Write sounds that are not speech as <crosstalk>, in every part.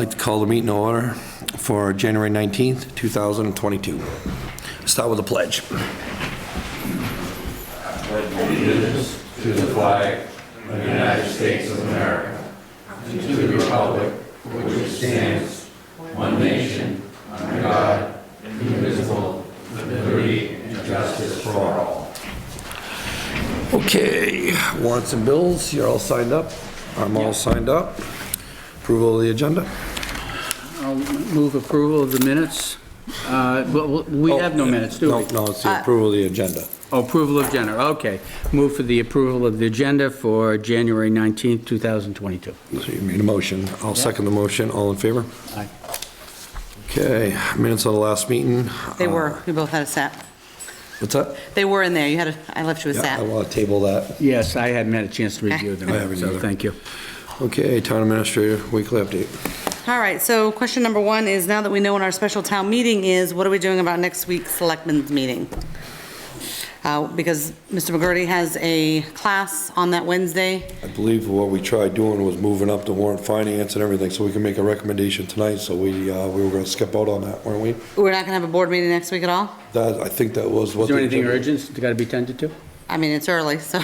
I'd like to call the meeting to order for January 19th, 2022. Start with a pledge. Okay, wants and bills, you're all signed up. I'm all signed up. Approval of the agenda? I'll move approval of the minutes. Uh, But w- we have no minutes, do we? Oh, No, no, it's Uh, the approval of the agenda. Oh, Approval of agenda, okay. Move for the approval of the agenda for January 19th, 2022. So you made a motion. I'll second the motion. All in favor? Aye. Okay, minutes of the last meeting. They Uh, were, we both had a set. What's that? They were in there, you had a, I left you a Yeah, I set. want to table that. Yes, I hadn't had a chance to review I haven't them, so either. thank you. Okay, town administrator, weekly update. All right, so question number one is, now that we know when our special town meeting is, what are we doing about next week's selectmen's meeting? Uh, Because Mr. McGurty has a class on that Wednesday. I believe what we tried doing was moving up the warrant finance and everything, so we can make a recommendation tonight, so we, uh, we were gonna skip out on that, weren't we? We're not going to have a board meeting next week at all? That, I think that was what. Is there the- anything urgent that's got to be tended to? I mean, it's early, so,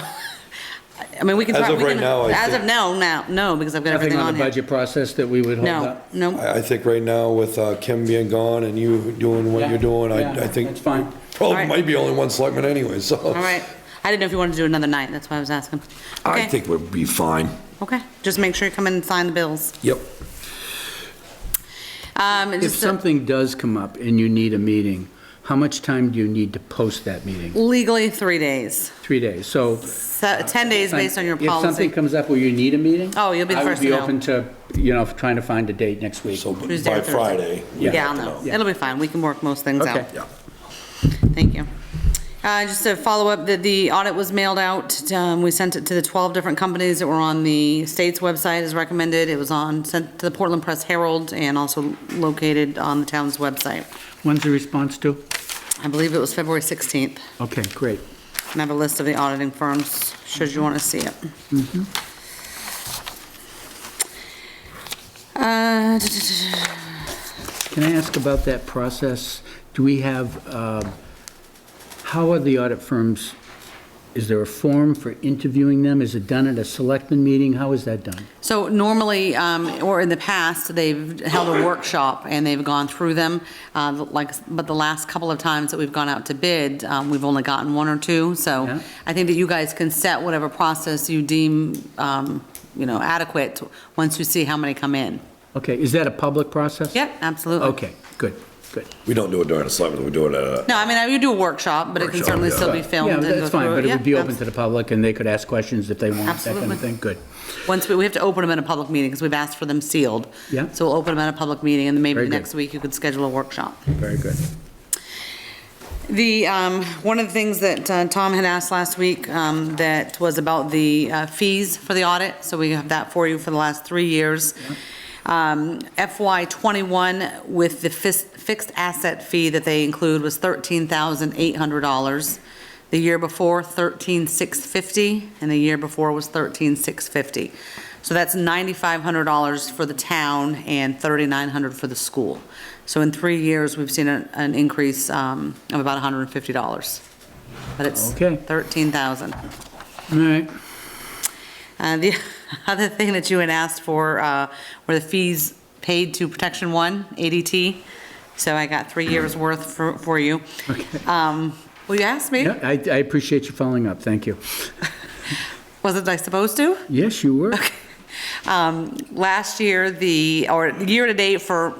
<laughs> I mean, we can. As try- of we right can- now, I As think- of now, now, no, because I've got Nothing everything on on the here. budget process that we would hold No, up? no. I, I think right now with uh, Kim being gone and you doing what you're doing, I, I think. That's fine. Probably Alright. might be only one selectman anyway, so. All right, I didn't know if you wanted to do another night, that's why I was asking. I Okay. think we'd be fine. Okay, just make sure you come in and sign the bills. Yep. Um, If just something does come up and you need a meeting, how much time do you need to post that meeting? legally three days, Three days, so... so ten days based on your Uh, If something policy. comes up where you need a meeting? Oh, you'll be the first to I know. would be open to, you know, trying to find a date next week. So Tuesday or by Thursday. Friday. Yeah. Yeah, I'll know. Yeah. It'll be fine. We can work most things Okay. out. Yeah. Thank you. Uh, just to follow up, that the audit was mailed out. Um, we sent it to the twelve different companies that were on the state's website as recommended. It was on, sent to the Portland Press Herald and also located on the town's website. When's the response due? I believe it was February sixteenth. Okay, great. And I have a list of the auditing firms, should you want to see it. Mm-hmm. Uh, Can I ask about that process? Do we have, um, how are the audit firms, is there a form for interviewing them? Is it done at a selectman meeting? How is that done? So normally, um, or in the past, they've held a workshop and they've gone through them. uh, Like, but the last couple of times that we've gone out to bid, um, we've only gotten one or two. Yeah. So I think that you guys can set whatever process you deem, um, you know, adequate, once you see how many come in. Okay, is that a public process? Yep, absolutely. Okay, good, good. We don't do it during the selectmen, we do it at a, No, I mean, you do a workshop, but it can Workshop, certainly yeah. still be filmed. Yeah, and go that's fine, through but it Yeah, would be open abs- to the public and they could ask questions if they want, that kind Absolutely. of thing, good. Once, we we have to open them at a public meeting, because we've asked for them sealed. Yeah. So we'll open them at a public meeting, and then maybe Very good. next week you could schedule a workshop. Very good. The, um, one of the things that uh, Tom had asked last week, um, that was about the uh, fees for the audit, so we have that for you for the last three years. Um, FY '21 with the fis- fixed asset fee that they include was $13,800. The year before, 13,650, and the year before was 13,650. So that's $9,500 for the town and 3,900 for the school. So in three years, we've seen an, an increase um, of about $150. But it's Okay. 13,000. All right, Uh, The <laughs> other thing that you had asked for uh, were the fees paid to Protection One, ADT. So I got three years' worth for, for you. Um, Well, you asked me, Yeah, I I appreciate you following up, thank you. wasn't I supposed to? Yes, you <laughs> were. Um, Last year, the, or year-to-date for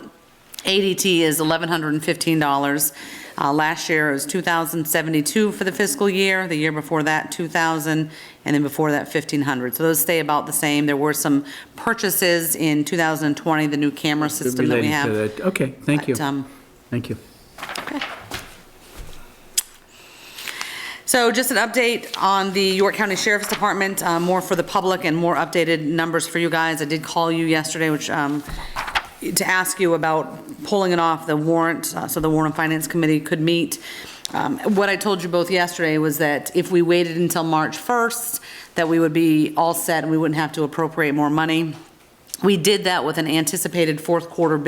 ADT is $1,115. Uh, Last year it was 2,072 for the fiscal year, the year before that, 2,000, and then before that, 1,500. So those stay about the same. There were some purchases in 2020, the new camera system that we Relating to have. that. Okay, thank you, But, um, thank you. So just an update on the York County Sheriff's Department, uh, more for the public and more updated numbers for you guys. I did call you yesterday, which, um, to ask you about pulling it off the warrant, uh, so the Warrant and Finance Committee could meet. Um, What I told you both yesterday was that if we waited until March 1st, that we would be all set and we wouldn't have to appropriate more money. We did that with an anticipated fourth quarter bid